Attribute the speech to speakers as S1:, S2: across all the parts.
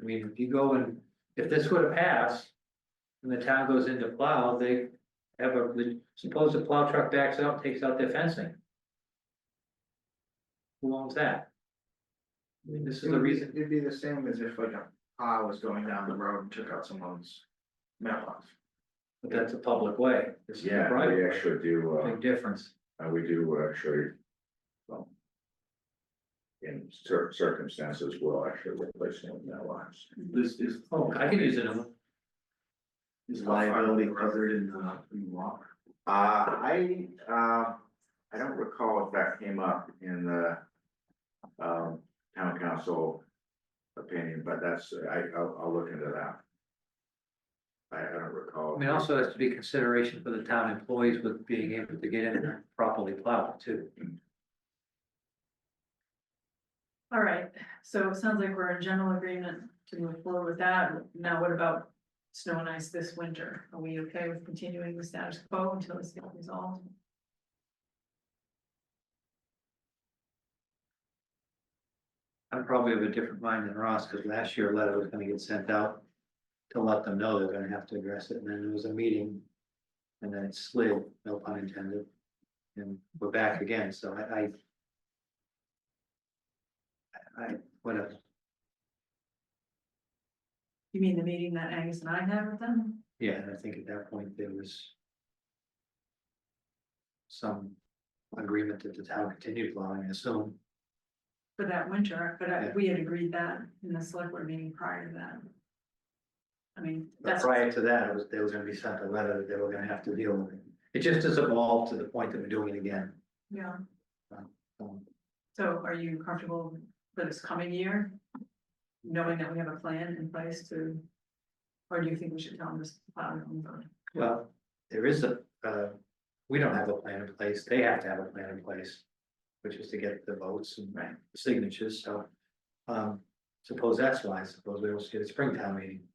S1: I mean, if you go and, if this would have passed. And the town goes into plow, they have a, suppose the plow truck backs out, takes out their fencing. Who owns that? I mean, this is the reason,
S2: It'd be the same as if like a car was going down the road and took out someone's mailbox.
S1: but that's a public way, this is a
S3: Yeah, we
S1: private,
S3: actually do,
S1: way.
S3: uh,
S1: big difference.
S3: uh, we do actually. um, In cer- circumstances, we'll actually replace them with mailbox.
S4: This is.
S1: Oh, I can use it, in a-
S4: Is liability covered in the, in law?
S3: Uh, I, uh, I don't recall if that came up in the. Um, town council opinion, but that's, I, I'll, I'll look into that. I, I don't recall.
S1: I mean, also has to be consideration for the town employees with being able to get in and properly plowed too.
S5: All right, so it sounds like we're in general agreement to move forward with that. Now what about snow and ice this winter? Are we okay with continuing the status quo until it's not resolved?
S1: I'm probably of a different mind than Ross, because last year a letter was gonna get sent out to let them know they're gonna have to address it, and then there was a meeting. And then it slid, no pun intended, and we're back again, so I, I. I, whatever,
S5: You mean the meeting that Angus and I had with them?
S1: yeah, and I think at that point there was. Some agreement that the town continued plowing, I assume,
S5: For that winter, but I-
S1: Yeah.
S5: we had agreed that in the select board meeting prior to that. I mean,
S1: but
S5: that's.
S1: prior to that, it was, there was gonna be sent a letter that they were gonna have to deal with it. It just has evolved to the point that we're doing it again.
S5: Yeah,
S1: Um,
S5: so are you comfortable for this coming year? Knowing that we have a plan in place to, or do you think we should tell them this? uh, plan and vote?
S1: Well, there is a, uh, we don't have a plan in place, they have to have a plan in place. Which is to get the votes and
S5: Right.
S1: signatures, so. Um, suppose that's why, suppose we don't get a springtime meeting.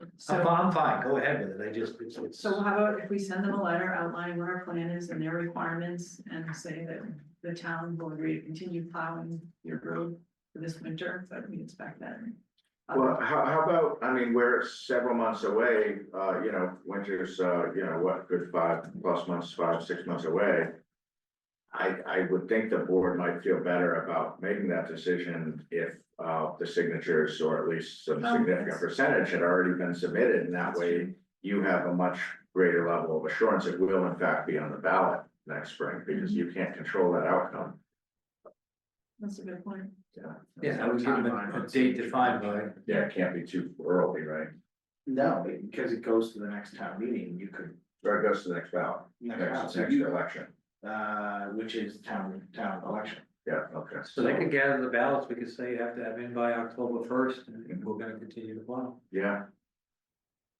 S1: I'm,
S5: So,
S1: fi- I'm fine, go ahead with it, I just, it's, it's,
S5: so how about if we send them a letter outlining what our plan is and their requirements and say that the town will agree to continue plowing your road for this winter, but we expect that. Uh,
S3: Well, how, how about, I mean, we're several months away, uh, you know, winter's, uh, you know, what, good five plus months, five, six months away. I, I would think the board might feel better about making that decision if, uh, the signatures or at least some
S5: Oh,
S3: significant
S5: yes.
S3: percentage had already been submitted, and that way you have a much greater level of assurance it will in fact be on the ballot next spring, because
S5: Mm-hmm.
S3: you can't control that outcome.
S5: That's a good point.
S1: yeah, I would give them a- a date defined by.
S3: Yeah, it can't be too early, right?
S2: No, because it goes to the next town meeting, you could.
S3: Or it goes to the next ballot,
S2: next-
S3: next,
S2: so
S3: next
S2: you-
S3: election.
S2: Uh, which is town, town election.
S3: Yeah, okay.
S1: So they could gather the ballots, we could say you have to have in by October first, and we're gonna continue to plow,
S3: Yeah,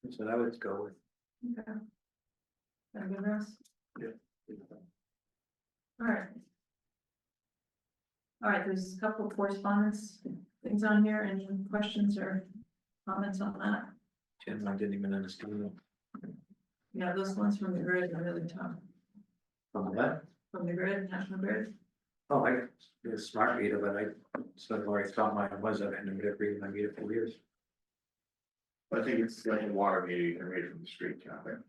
S1: so that would go with.
S5: Okay. That good, Russ? All right. All right, there's a couple of correspondence, things on here, any questions or comments on that?
S1: Jim, I didn't even understand it.
S5: Yeah, those ones from the grid are really tough,
S1: from that.
S5: from the grid, National Grid.
S1: Oh, I, you're a smart reader, but I, so where I thought mine was, I've been reading my reader for years.
S2: I think it's like a water meter, you can read from the street, kind of thing.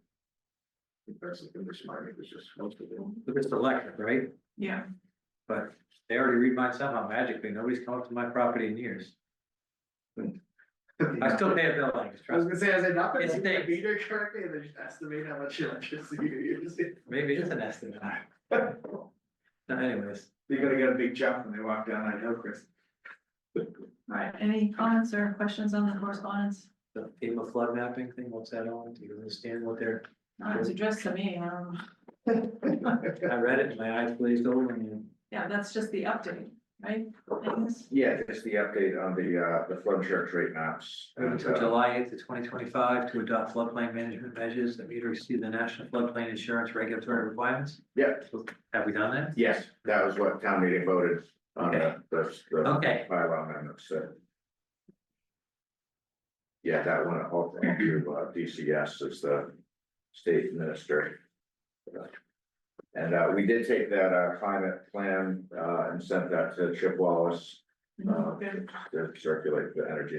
S2: If That's the English market, it's just most of them.
S1: But it's electric, right?
S5: Yeah.
S1: But they already read mine somehow magically. Nobody's come up to my property in years. I still pay a bill like this,
S2: I
S1: trust
S2: was
S1: me.
S2: gonna say, has it not been
S1: It's
S2: like
S1: big.
S2: a meter correctly, and they just estimate how much electricity you're using?
S1: Maybe it's an estimate. No, anyways,
S2: You're gonna get a big jump when they walk down that hill, Chris.
S5: All right, any comments or questions on the correspondence?
S1: the FEMA flood mapping thing, what's that on? Do you understand what they're,
S5: Uh, It was addressed to me, um,
S1: I read it, and my eyes glazed over and
S5: yeah, that's just the update, right? Angus?
S3: yeah, just the update on the, uh, the flood insurance rate maps.
S2: Oh,
S1: Moving
S3: and,
S1: to
S3: uh,
S1: July eighth to twenty twenty-five to adopt floodplain management measures that meet or exceed the national floodplain insurance regulatory requirements.
S3: Yeah,
S1: Have we done that?
S3: yes, that was what town meeting voted on uh, the, the, the
S1: Okay,
S3: bylaw amendments, so. Yeah, that one, all through, uh, DCS is the state minister. And, uh, we did take that, uh, climate plan, uh, and sent that to Chip Wallace, uh,
S5: Good.
S3: to circulate the energy